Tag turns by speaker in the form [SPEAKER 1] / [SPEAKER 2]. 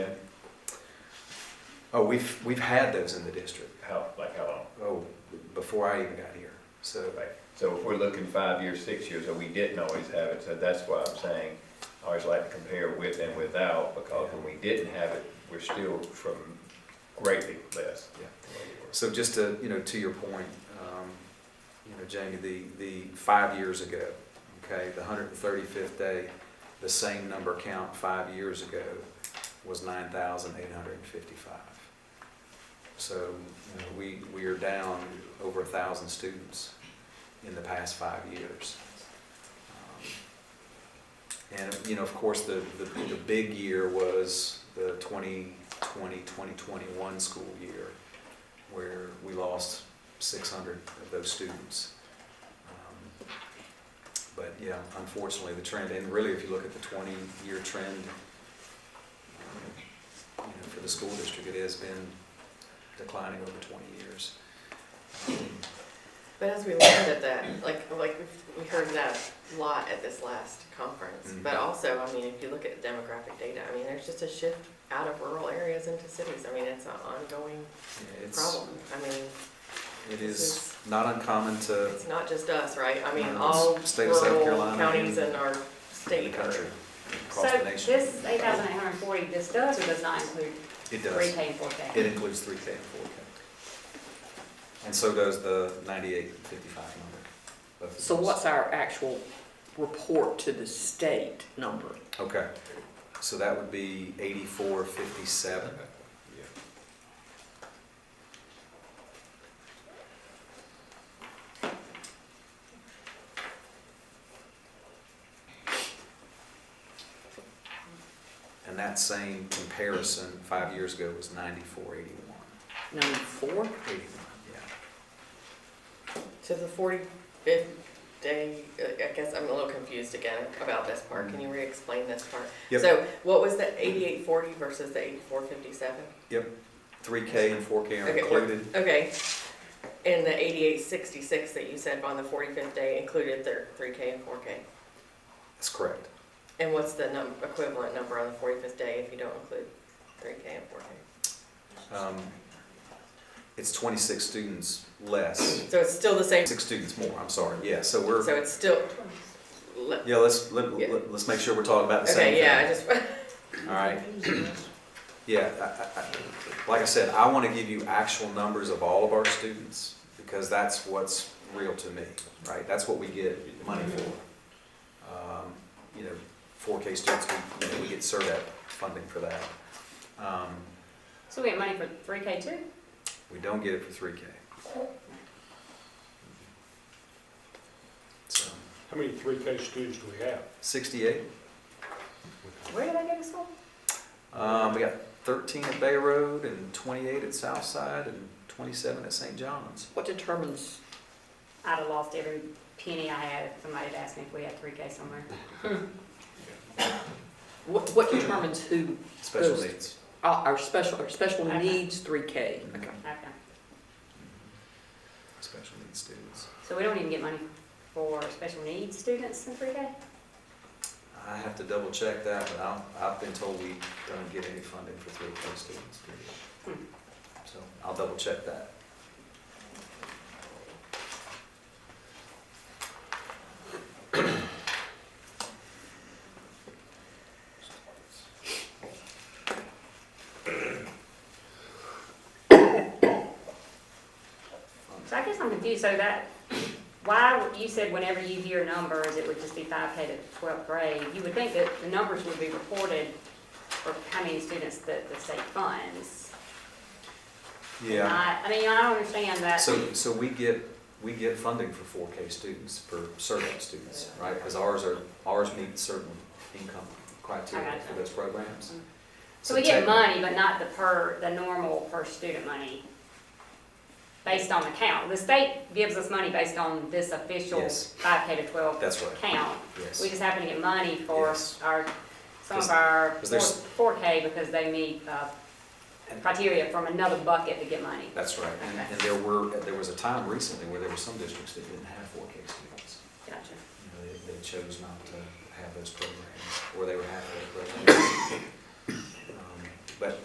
[SPEAKER 1] Oh, we've, we've had those in the district,
[SPEAKER 2] How, like how long?
[SPEAKER 1] oh, before I even got here. So,
[SPEAKER 2] Right. So if we're looking five years, six years, and we didn't always have it, so that's why I'm saying, I always like to compare with and without, because when we didn't have it, we're still from greatly less.
[SPEAKER 1] Yeah. so just to, you know, to your point, um, you know, Jamie, the, the five years ago, okay, the hundred and thirty-fifth day, the same number count five years ago was nine thousand eight hundred and fifty-five. So, you know, we, we are down over a thousand students in the past five years. Um, And, you know, of course, the, the, the big year was the 2020, 2021 school year, where we lost 600 of those students. Um, But yeah, unfortunately, the trend, and really, if you look at the 20-year trend, um, you know, for the school district, it has been declining over 20 years.
[SPEAKER 3] But as we learned at that, like, like we've- we heard that a lot at this last conference, but
[SPEAKER 1] Mhm.
[SPEAKER 3] also, I mean, if you look at demographic data, I mean, there's just a shift out of rural areas into cities. I mean, it's an ongoing
[SPEAKER 1] Yeah, It's,
[SPEAKER 3] problem. I mean,
[SPEAKER 1] it
[SPEAKER 3] This
[SPEAKER 1] is
[SPEAKER 3] is-
[SPEAKER 1] not uncommon to
[SPEAKER 3] it's not just us, right? I mean,
[SPEAKER 1] No, it's
[SPEAKER 3] all
[SPEAKER 1] state of South
[SPEAKER 3] rural
[SPEAKER 1] Carolina
[SPEAKER 3] counties
[SPEAKER 1] and
[SPEAKER 3] in our
[SPEAKER 1] in the
[SPEAKER 3] state are.
[SPEAKER 1] country,
[SPEAKER 4] So
[SPEAKER 1] across the nation.
[SPEAKER 4] this eight thousand eight hundred and forty, this does or does not include
[SPEAKER 1] It
[SPEAKER 4] three
[SPEAKER 1] does.
[SPEAKER 4] K and four K?
[SPEAKER 1] It includes three K and four K. And so does the ninety-eight fifty-five number. both of
[SPEAKER 5] So
[SPEAKER 1] those.
[SPEAKER 5] what's our actual report to the state number?
[SPEAKER 1] Okay, so that would be eighty-four fifty-seven. And that same comparison five years ago was ninety-four eighty-one.
[SPEAKER 5] Number four?
[SPEAKER 1] Eighty-one, yeah.
[SPEAKER 3] To the forty-fifth day, I I guess I'm a little confused again about this part. Can you re-explain this part?
[SPEAKER 1] Mm-hmm. Yep.
[SPEAKER 3] So what was the eighty-eight forty versus the eighty-four fifty-seven?
[SPEAKER 1] Three K and four K are
[SPEAKER 3] Okay, we're-
[SPEAKER 1] included.
[SPEAKER 3] Okay, and the eighty-eight sixty-six that you said on the forty-fifth day included their three K and four K?
[SPEAKER 1] That's correct.
[SPEAKER 3] And what's the num, equivalent number on the forty-fifth day if you don't include three K and four K?
[SPEAKER 1] Um, It's twenty-six students less,
[SPEAKER 3] So it's still the same,
[SPEAKER 1] six students more, I'm sorry, yeah, so we're,
[SPEAKER 3] so it's still, le-
[SPEAKER 1] yeah, let's, let,
[SPEAKER 3] Yeah.
[SPEAKER 1] let- let's make sure we're talking about the same thing.
[SPEAKER 3] okay, yeah, I just,
[SPEAKER 1] All right, yeah, I, I, I, like I said, I wanna give you actual numbers of all of our students, because that's what's real to me, right? That's what we get money for. Um, You know, four K students, we, you know, we get CERDEP funding for that. Um,
[SPEAKER 4] So we get money for three K too?
[SPEAKER 1] We don't get it for three K. So,
[SPEAKER 6] How many three K students do we have?
[SPEAKER 1] sixty-eight,
[SPEAKER 4] Where did I go to school?
[SPEAKER 1] um, we got thirteen at Bay Road and twenty-eight at Southside and twenty-seven at St. John's.
[SPEAKER 5] What determines,
[SPEAKER 4] I'd have lost every penny I had if somebody had asked me if we had three K somewhere.
[SPEAKER 5] what, what determines who,
[SPEAKER 1] Special
[SPEAKER 5] Those-
[SPEAKER 1] needs.
[SPEAKER 5] our, our special, our special
[SPEAKER 4] Okay.
[SPEAKER 5] needs three K?
[SPEAKER 1] Okay.
[SPEAKER 4] Okay,
[SPEAKER 1] Special needs students.
[SPEAKER 4] so we don't even get money for special needs students in three K?
[SPEAKER 1] I have to double check that, but I'm, I've been told we don't get any funding for three K students, period. So I'll double check that.
[SPEAKER 4] So I guess I'm confused, so that, why, would- you said whenever you hear numbers, it would just be five K to twelfth grade. You would think that the numbers would be reported for how many students that the state funds. Not- I mean, I don't understand that.
[SPEAKER 1] So, so we get, we get funding for four K students, for certain students, right? Because ours are, ours meet certain income criteria for those programs.
[SPEAKER 4] Mm-hmm. So we get
[SPEAKER 1] techni-
[SPEAKER 4] money, but not the per, the normal per student money based on the count. The state gives us money based on this official
[SPEAKER 1] Yes.
[SPEAKER 4] five K to twelve
[SPEAKER 1] That's right,
[SPEAKER 4] count. We
[SPEAKER 1] yes.
[SPEAKER 4] just happen to get money for
[SPEAKER 1] Yes.
[SPEAKER 4] our, some
[SPEAKER 1] Because-
[SPEAKER 4] of our
[SPEAKER 1] because there's-
[SPEAKER 4] four K because they meet, uh, criteria from another bucket to get money.
[SPEAKER 1] That's right. And, and there were, there was a time recently where there were some districts that didn't have four K students.
[SPEAKER 4] Gotcha.
[SPEAKER 1] you know, they, they chose not to Um, have those programs, or they were half-day programs.